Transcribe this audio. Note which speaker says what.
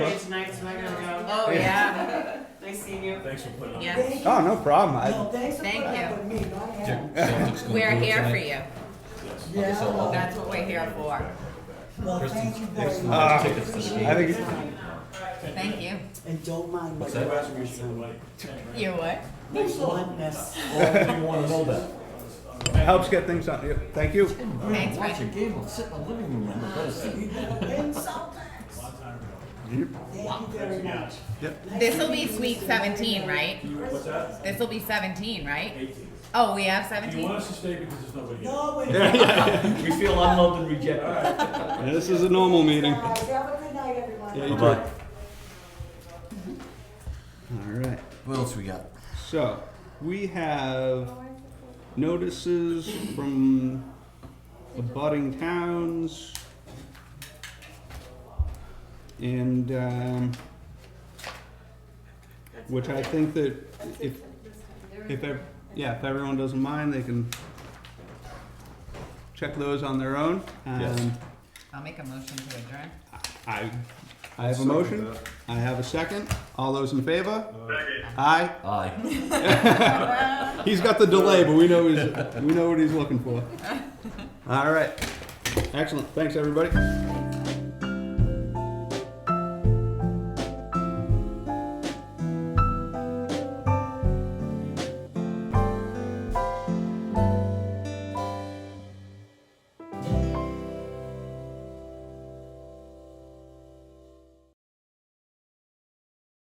Speaker 1: away tonight, so I gotta go. Oh, yeah. Nice seeing you.
Speaker 2: Thanks for putting on.
Speaker 1: Yeah.
Speaker 3: Thank you.
Speaker 4: Oh, no problem. I,
Speaker 3: No, thanks for
Speaker 1: Thank
Speaker 3: putting
Speaker 1: you.
Speaker 3: up with me, not him.
Speaker 1: We're here for you.
Speaker 2: Yes.
Speaker 3: Yeah,
Speaker 5: so I'll-
Speaker 3: well,
Speaker 1: That's what we're here for.
Speaker 3: well, thank you very
Speaker 5: Next
Speaker 3: much.
Speaker 5: month, tickets to the
Speaker 4: I
Speaker 5: skate.
Speaker 4: think it,
Speaker 1: Thank you.
Speaker 3: And don't mind my
Speaker 5: What's that?
Speaker 3: graduation.
Speaker 1: You what?
Speaker 3: There's one mess.
Speaker 5: You wanna know that?
Speaker 4: helps get things on. yeah, Thank you.
Speaker 1: Thanks,
Speaker 5: Watch a
Speaker 1: Mike.
Speaker 5: game, I'll sit in the living room, I'm gonna
Speaker 3: We
Speaker 5: see.
Speaker 3: will win sometimes.
Speaker 4: Yep.
Speaker 3: Thank you very much.
Speaker 1: This'll be sweet seventeen, right?
Speaker 2: Do you, what's that?
Speaker 1: This'll be seventeen, right?
Speaker 2: Eighteen.
Speaker 1: Oh, we have
Speaker 2: Do you want
Speaker 1: seventeen?
Speaker 2: us to stay because there's nobody here?
Speaker 3: No, we not.
Speaker 5: We feel unloved and rejected.
Speaker 4: Yeah, this is a normal meeting.
Speaker 3: Have a good night, everyone.
Speaker 4: Yeah, you too.
Speaker 5: Bye-bye.
Speaker 4: All right.
Speaker 5: What else we got?
Speaker 4: So we have notices from abutting towns. And, um, which I think that if, if, ev- yeah, if everyone doesn't mind, they can check those on their own.
Speaker 5: Yes.
Speaker 4: Um,
Speaker 1: I'll make a motion to adjourn.
Speaker 4: I, I have a motion. I have a second. All those in favor? Aye.
Speaker 5: Aye.
Speaker 4: He's got the delay, but we know he's, we know what he's looking for. All right. Excellent. Thanks, everybody.